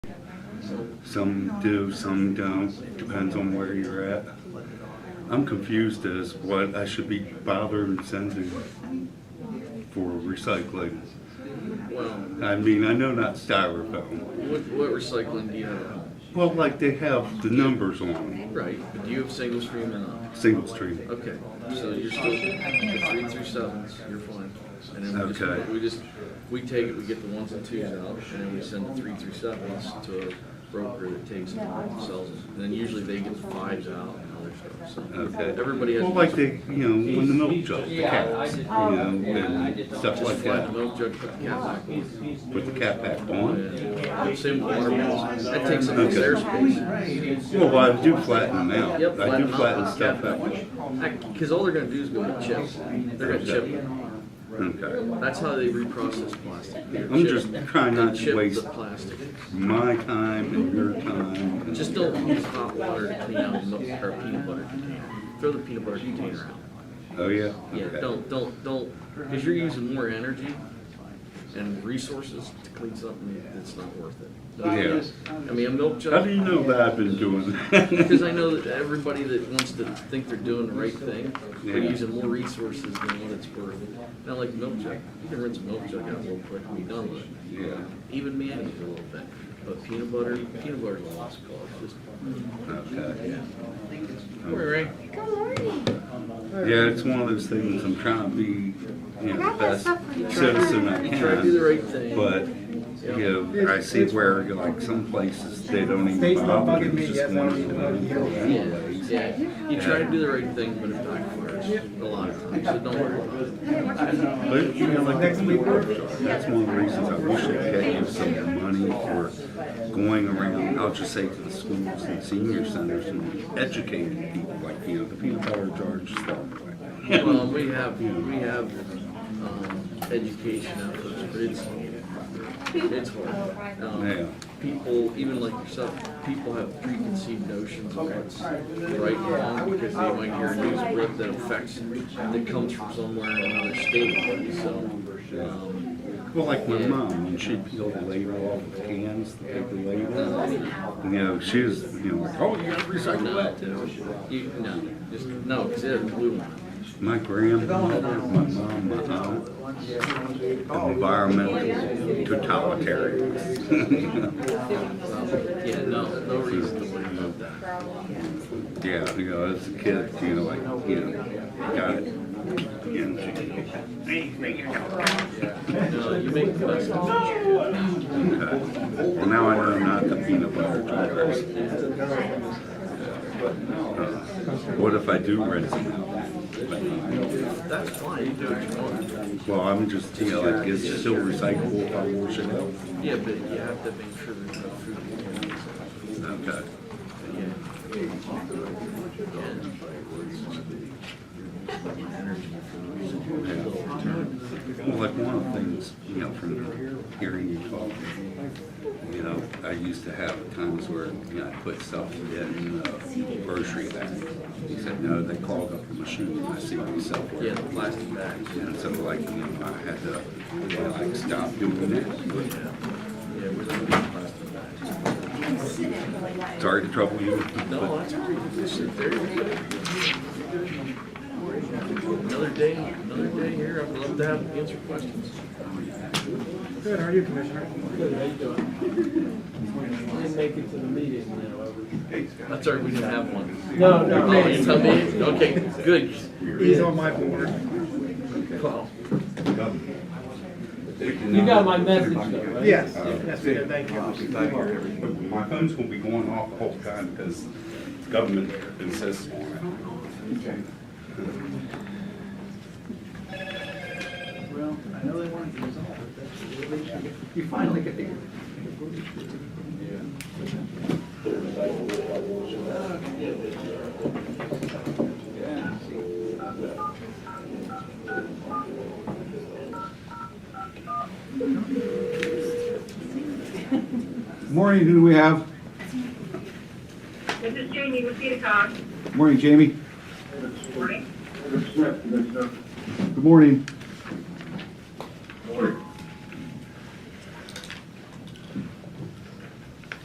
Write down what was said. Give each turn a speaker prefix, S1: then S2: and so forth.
S1: Some do, some don't, depends on where you're at. I'm confused as what I should be bothering sending for recycling.
S2: Well,
S1: I mean, I know not styrofoam.
S2: what, what recycling do you have?
S1: Well, like they have the numbers on them,
S2: Right, but do you have single stream and not?
S1: single stream.
S2: Okay, so you're still, the three through sevens, you're fine. And then we just,
S1: Okay.
S2: we just, we take it, we get the ones and twos out, and then we send the three through sevens to a broker that takes them and sells them. And then usually they get the fives out and other stuff, so.
S1: Okay.
S2: Everybody has.
S1: Well, like they, you know, when the milk jug, the cats, you know,
S3: Oh, I
S1: and
S3: did not.
S1: stuff like
S2: Just flat
S1: that.
S2: the milk jug, put the cap back on.
S1: Put the cap back on.
S2: Yeah. Same with water bottles, that takes up
S1: Okay.
S2: their space.
S1: Well, I do flatten them out.
S2: Yep,
S1: I do
S2: flatten out,
S1: flatten
S2: put the
S1: stuff
S2: cap back
S1: out.
S2: on. Cause all they're gonna do is go to chip, they're gonna chip it.
S1: Okay.
S2: That's how they reprocess plastic.
S1: I'm just trying not to
S2: Chip
S1: waste
S2: the plastic.
S1: my time and your time. and-
S2: Just don't use hot water to clean out milk or peanut butter container. Throw the peanut butter container out.
S1: Oh, yeah?
S2: Yeah,
S1: Okay.
S2: don't, don't, don't, because you're using more energy and resources to clean something that's not worth it. Don't do
S1: Yeah.
S2: that. I mean, a milk jug.
S1: How do you know that I've been doing
S2: Because
S1: that?
S2: I know that everybody that wants to think they're doing the right thing, they're
S1: Yeah.
S2: using more resources than what it's worth. Not like milk jug, you can rinse a milk jug out real quick and be done with it.
S1: Yeah.
S2: Even mayonnaise a little bit, but peanut butter, peanut butter's a lost cause, just,
S1: Okay.
S2: all right.
S4: Good morning.
S1: Yeah, it's one of those things, I'm trying to be, you know, the best citizen I
S2: You try to do the
S1: can.
S2: right thing.
S1: But, you know, I see where, like, some places, they don't even bother, it's just one of the ones
S2: Yeah,
S1: anyways.
S2: yeah, you try to do the right thing, but it backfires a lot of times, so don't worry about it.
S1: But, you know, like, that's one of the reasons I wish I could give some money for going around, I'll just say to the schools and senior centers and educating people, like, you know, the peanut butter jar and stuff like that.
S2: Well, we have, we have, um, education efforts, but it's, it's hard.
S1: Yeah.
S2: Um, People, even like yourself, people have preconceived notions of what's right and wrong because they might hear a news rip that affects, that comes from somewhere in another state, so. um,
S1: Well, like my mom, when she peeled the label off the cans, the paper label, you know, she was, you know, like, oh, you gotta recycle
S2: No,
S1: that.
S2: you, no, just, no, because it has blue on it.
S1: My grandmother, my mom, my aunt, environmental totalitarians.
S2: Um, Yeah, no, no reason to worry about that.
S1: Yeah, you know, as a kid, you know, like, you know, got it. Yeah.
S2: No, you make the best of it.
S1: Okay. Well, now I know not the peanut butter drivers. What if I do rinse them out?
S2: That's fine, you do what you want.
S1: Well, I'm just, you know, like, it's still recyclable if I wash it out.
S2: Yeah, but you have to make sure there's no food. contaminants.
S1: Okay. Well, like one of the things, you know, from hearing you talk, you know, I used to have times where, you know, I put stuff in the grocery bag. He said, no, they clog up the machine, and I see myself
S2: Yeah,
S1: where.
S2: the plastic bags.
S1: And so like, you know, I had to, you know, like, stop doing it.
S2: Yeah, we don't need plastic bags.
S1: Sorry to trouble you.
S2: No, that's pretty efficient. There you go. Another day, another day here. I'd love to have answer questions.
S5: Good, how are you, Commissioner?
S6: Good, how you doing? I didn't make it to the meeting, you know, I
S2: That's all right, we didn't have one.
S6: No,
S2: Oh, you tell me? Okay, good.
S5: He's on my board.
S2: Well,
S6: You got my message though, right?
S5: Yes, yes, we did, thank you.
S1: My phone's gonna be going off the whole time because government insists on it.
S5: Well, I know they wanted to resolve it, that's really, you finally get the.
S7: Morning, who do we have?
S8: This is Jamie with Peacock.
S7: Morning, Jamie.
S8: Morning.
S7: Good morning.